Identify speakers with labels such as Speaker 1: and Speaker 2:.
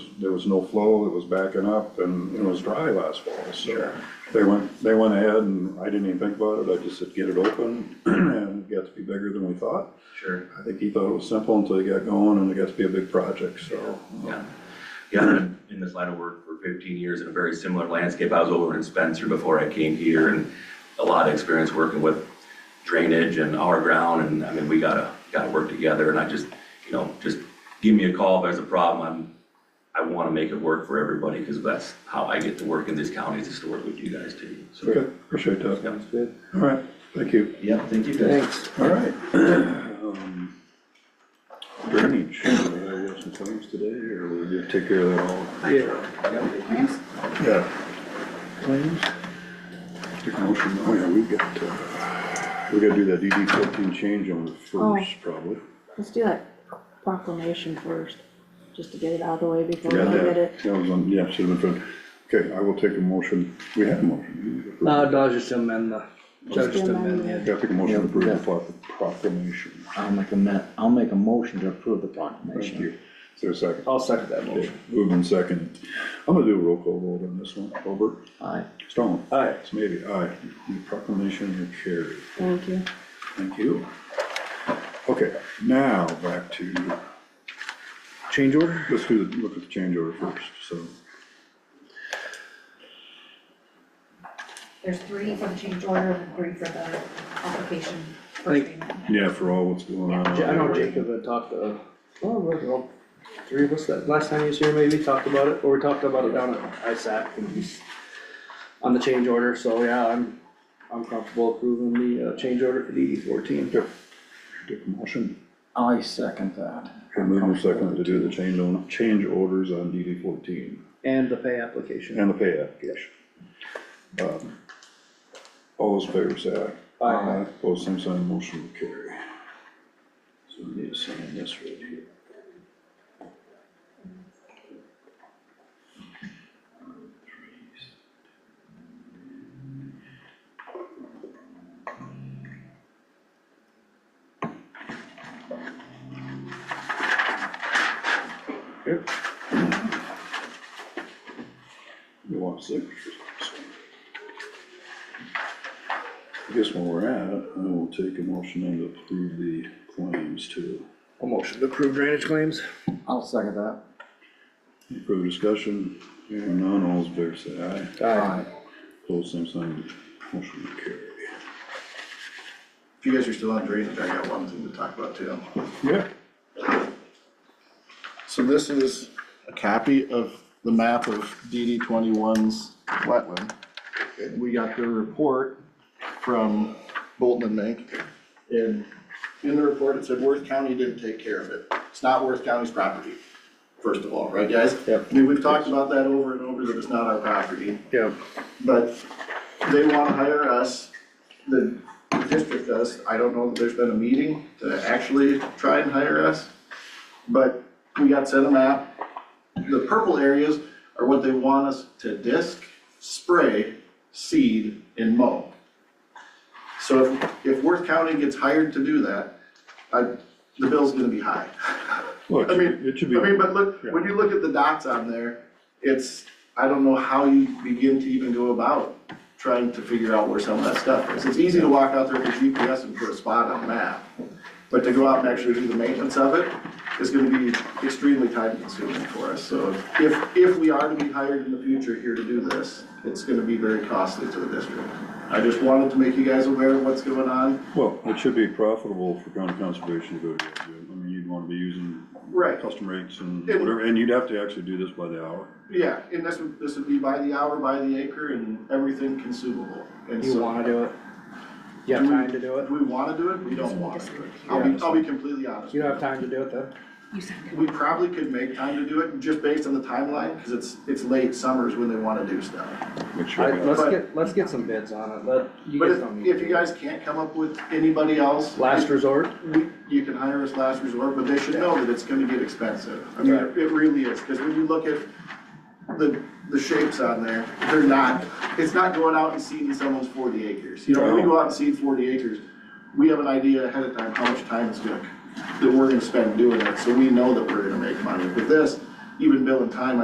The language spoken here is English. Speaker 1: there was no flow, it was backing up, and it was dry last fall, so. They went, they went ahead, and I didn't even think about it, I just said, get it open, and it got to be bigger than we thought.
Speaker 2: Sure.
Speaker 1: I think he thought it was simple until he got going, and it got to be a big project, so. uh,
Speaker 2: Yeah, yeah, I've been in this line of work for fifteen years in a very similar landscape. I was over in Spencer before I came here and a lot of experience working with drainage and our ground and I mean, we gotta, gotta work together and I just, you know, just give me a call if there's a problem. I'm, I wanna make it work for everybody because that's how I get to work in these counties is to work with you guys too. So,
Speaker 1: Okay, appreciate that.
Speaker 2: yeah.
Speaker 3: Good.
Speaker 1: All right, thank you.
Speaker 2: Yeah, thank you guys.
Speaker 3: Thanks.
Speaker 1: All right. Um, Drainage, uh, we have some claims today, or we're gonna take care of that all?
Speaker 3: Yeah.
Speaker 1: Yeah. Claims? Take a motion, oh yeah, we got, uh, we gotta do that DD fourteen change on the first, probably.
Speaker 4: Let's do that proclamation first, just to get it out of the way before we
Speaker 1: Forgot
Speaker 4: get
Speaker 1: that,
Speaker 4: it.
Speaker 1: that was on, yeah, should have been, done. okay, I will take a motion, we have a motion.
Speaker 5: Uh, Dodge just amend the, judge just
Speaker 4: Just amend
Speaker 5: amend
Speaker 4: the-
Speaker 5: the
Speaker 1: Gotta take a motion to approve
Speaker 3: Yeah.
Speaker 1: the pro- proclamation,
Speaker 3: I'll make a ma, I'll make a motion to approve the
Speaker 1: thank
Speaker 3: proclamation.
Speaker 1: you, is there a second?
Speaker 5: I'll second that motion.
Speaker 1: Moved and second, I'm gonna do a roll call vote on this one, Over.
Speaker 3: Aye.
Speaker 1: Stone.
Speaker 5: Aye.
Speaker 1: It's maybe aye. The proclamation is carried.
Speaker 4: Thank you.
Speaker 1: Thank you. Okay, now back to change order. Let's do, the look at the change order first, so.
Speaker 6: There's three for the change order and three for the application for
Speaker 5: Like-
Speaker 6: payment.
Speaker 1: Yeah, for all what's going on.
Speaker 5: Ja- I know Jacob had talked, uh, well, we're all three of us, that last time he was here, maybe, talked about it, or we talked about it down at ISAC when he's on the change order, so yeah, I'm, I'm comfortable approving the, uh, change order for DD fourteen.
Speaker 1: Yep. Take a motion.
Speaker 3: I second that.
Speaker 1: And move in second to do the change on, change orders on DD fourteen
Speaker 5: And the pay application.
Speaker 1: and the pay application. Um, All those in favor say aye.
Speaker 5: Aye.
Speaker 1: Both same sign, motion will carry. So we need to sign this right here. Here. You want signatures on this one? I guess when we're at it, I will take a motion and approve the claims too.
Speaker 5: A motion to approve drainage claims.
Speaker 3: I'll second that.
Speaker 1: Any further discussion? Hearing none, all's fair say aye.
Speaker 3: Aye.
Speaker 1: Close same sign, motion will carry.
Speaker 7: If you guys are still on drainage, I got one thing to talk about too.
Speaker 1: Yeah.
Speaker 7: So this is a copy of the map of DD 21's wetland. And We got the report from Bolton and Mink. And in the report, it said Worth County didn't take care of it. It's not Worth County's property, first of all, right, guys?
Speaker 5: Yep.
Speaker 7: I mean, we've talked about that over and over, that it's not our property.
Speaker 5: Yeah.
Speaker 7: But they wanna hire us, the district does, I don't know that there's been a meeting to actually try and hire us. But we got sent a map, the purple areas are what they want us to disc, spray, seed, and mow. So if, if Worth County gets hired to do that, I, the bill's gonna be high.
Speaker 1: Look,
Speaker 7: I mean,
Speaker 1: it should be.
Speaker 7: I mean, but look,
Speaker 1: Yeah.
Speaker 7: when you look at the dots on there, it's, I don't know how you begin to even go about trying to figure out where some of that stuff is. It's easy to walk out there with a GPS and put a spot on a map, but to go out and actually do the maintenance of it is gonna be extremely time consuming for us. So if, if we are to be hired in the future here to do this, it's gonna be very costly to the district. I just wanted to make you guys aware of what's going on.
Speaker 1: Well, it should be profitable for county conservation to go to, I mean, you'd wanna be using
Speaker 7: Right.
Speaker 1: custom rates and
Speaker 7: And-
Speaker 1: whatever, and you'd have to actually do this by the hour.
Speaker 7: Yeah, and this would, this would be by the hour, by the acre, and everything consumable. And
Speaker 5: You
Speaker 7: so-
Speaker 5: wanna do it? You have
Speaker 7: Do we-
Speaker 5: time to do it?
Speaker 7: Do we wanna do it? We don't wanna do it. I'll be, I'll be completely honest.
Speaker 5: You don't have time to do it then?
Speaker 6: You second.
Speaker 7: We probably could make time to do it, just based on the timeline, because it's, it's late summers when they wanna do stuff.
Speaker 1: Make sure.
Speaker 5: I,
Speaker 1: we have-
Speaker 5: let's
Speaker 7: But-
Speaker 5: get, let's get some bids on it, let, you
Speaker 7: But
Speaker 5: guys
Speaker 7: if,
Speaker 5: don't need.
Speaker 7: if
Speaker 5: to.
Speaker 7: you guys can't come up with anybody else.
Speaker 5: Last resort?
Speaker 7: we- You can hire us last resort, but they should know that it's gonna get expensive. I mean, it it really is, because when you look at the, the shapes on there, they're not, it's not going out and seeding someone's forty acres. You know, when we go out and seed forty acres, we have an idea ahead of time how much time it's gonna, that we're gonna spend doing it, so we know that we're gonna make money. With this, even bill and time,